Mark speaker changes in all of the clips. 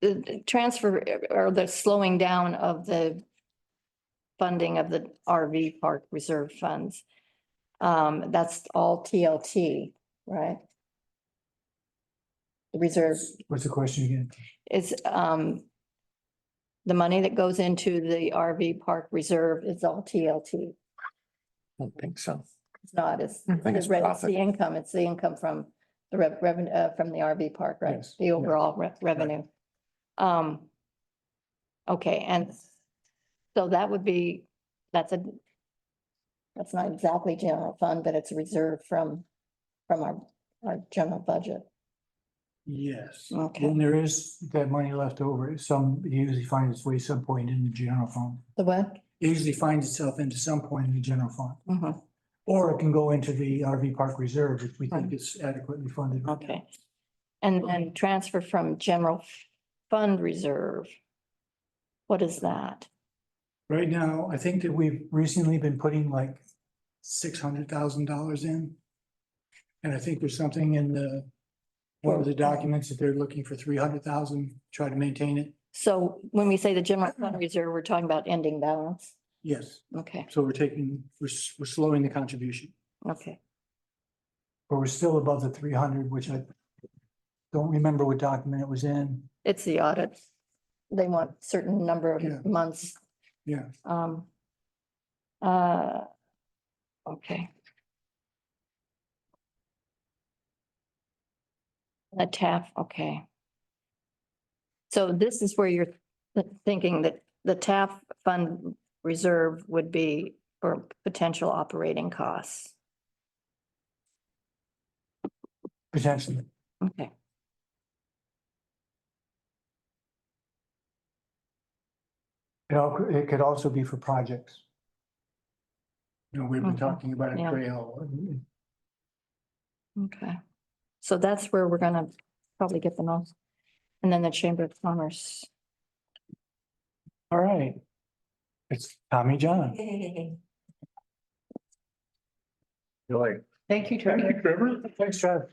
Speaker 1: the the transfer or the slowing down of the funding of the RV park reserve funds. Um, that's all TLT, right? The reserve
Speaker 2: What's the question again?
Speaker 1: is, um, the money that goes into the RV park reserve is all TLT.
Speaker 3: I don't think so.
Speaker 1: It's not, it's,
Speaker 3: I think
Speaker 1: it's
Speaker 3: it's
Speaker 1: re- it's
Speaker 3: profit.
Speaker 1: the income, it's the income from the rev- revenue, uh, from the RV park, right?
Speaker 2: Yes,
Speaker 1: The
Speaker 2: yeah.
Speaker 1: overall re- revenue. Um, okay, and so that would be, that's a, that's not exactly general fund, but it's reserved from, from our, our general budget.
Speaker 2: Yes.
Speaker 1: Okay.
Speaker 2: And there is that money left over. Some it usually finds its way some point in the general fund.
Speaker 1: The what?
Speaker 2: It usually finds itself into some point in the general fund.
Speaker 1: Mhm,
Speaker 2: Or it can go into the RV park reserve if we think it's adequately funded.
Speaker 1: Mm. okay. And then transfer from general fund reserve. What is that?
Speaker 2: Right now, I think that we've recently been putting like six hundred thousand dollars in. And I think there's something in the, one of the documents that they're looking for three hundred thousand, try to maintain it.
Speaker 1: So when we say the general fund reserve, we're talking about ending balance?
Speaker 2: Yes,
Speaker 1: Okay,
Speaker 2: so we're taking, we're, s- we're slowing the contribution.
Speaker 1: okay.
Speaker 2: But we're still above the three hundred, which I don't remember what document it was in.
Speaker 1: It's the audit. They want certain number
Speaker 2: Yeah.
Speaker 1: of months.
Speaker 2: Yeah.
Speaker 1: Um. Uh. Okay. The TAF, okay. So this is where you're th- thinking that the TAF fund reserve would be for potential operating costs.
Speaker 2: Potentially.
Speaker 1: Okay.
Speaker 2: It al- it could also be for projects. You know, we've been
Speaker 1: Mhm.
Speaker 2: talking about a
Speaker 1: Yeah.
Speaker 2: trail. and-
Speaker 1: Okay, so that's where we're gonna probably get the most. And then the Chamber of Commerce.
Speaker 2: All right. It's Tommy John.
Speaker 3: You're like,
Speaker 1: Thank you,
Speaker 2: Thank you, Trevor. Thanks, Trav.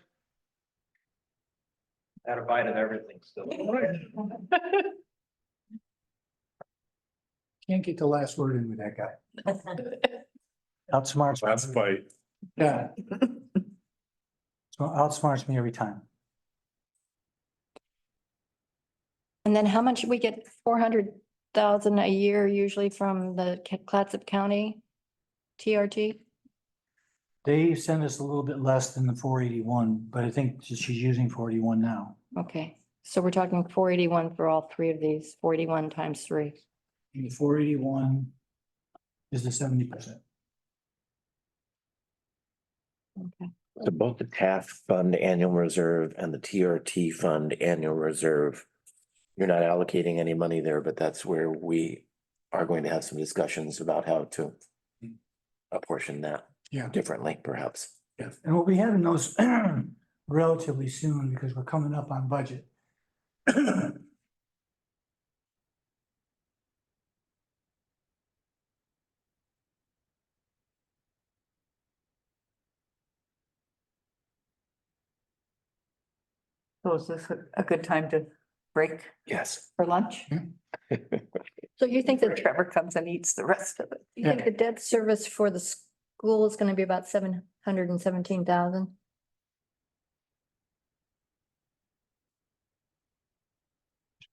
Speaker 4: Had a bite of everything still.
Speaker 2: Can't get the last word in with that guy. Outsmarts.
Speaker 5: That's by
Speaker 2: Yeah. So outsmarts me every time.
Speaker 1: And then how much we get, four hundred thousand a year usually from the Ca- Clatsop County? TRT?
Speaker 2: They send us a little bit less than the four eighty-one, but I think she's using four eighty-one now.
Speaker 1: Okay, so we're talking four eighty-one for all three of these, forty-one times three.
Speaker 2: And the four eighty-one is the seventy percent.
Speaker 1: Okay,
Speaker 3: so both the TAF fund annual reserve and the TRT fund annual reserve. You're not allocating any money there, but that's where we are going to have some discussions about how to apportion that
Speaker 2: Yeah.
Speaker 3: differently, perhaps.
Speaker 2: Yes. And we'll be having those relatively soon because we're coming up on budget.
Speaker 6: So is this a- a good time to break
Speaker 3: Yes.
Speaker 6: for lunch?
Speaker 1: so you think
Speaker 6: Then
Speaker 1: that,
Speaker 6: Trevor comes and eats the rest of it.
Speaker 1: you think the debt service for the school is gonna be about seven hundred and seventeen thousand?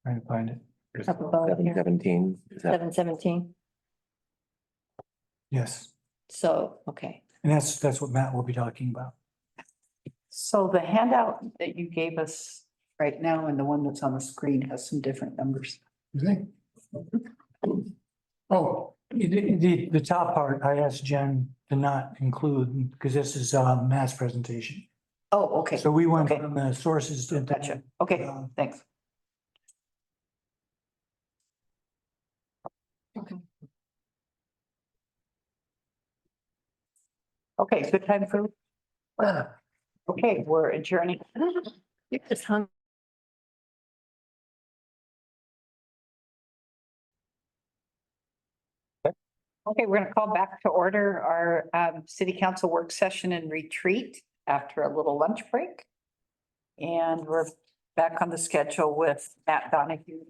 Speaker 2: Trying to find it.
Speaker 1: Up above
Speaker 3: Seven
Speaker 1: here,
Speaker 3: seventeen, is that
Speaker 1: seven seventeen,
Speaker 2: Yes,
Speaker 1: so, okay.
Speaker 2: and that's, that's what Matt will be talking about.
Speaker 6: So the handout that you gave us right now and the one that's on the screen has some different numbers.
Speaker 2: You think? Oh, the, the, the top part, I asked Jen to not include, because this is a mass presentation.
Speaker 6: Oh, okay.
Speaker 2: So we went
Speaker 6: okay.
Speaker 2: from the sources to.
Speaker 6: Gotcha. Okay,
Speaker 2: Um,
Speaker 6: thanks.
Speaker 1: Okay.
Speaker 6: Okay, good time for. Okay, we're adjourning.
Speaker 1: You're just hungry.
Speaker 6: Okay, we're gonna call back to order our um city council work session and retreat after a little lunch break. And we're back on the schedule with Matt Donahue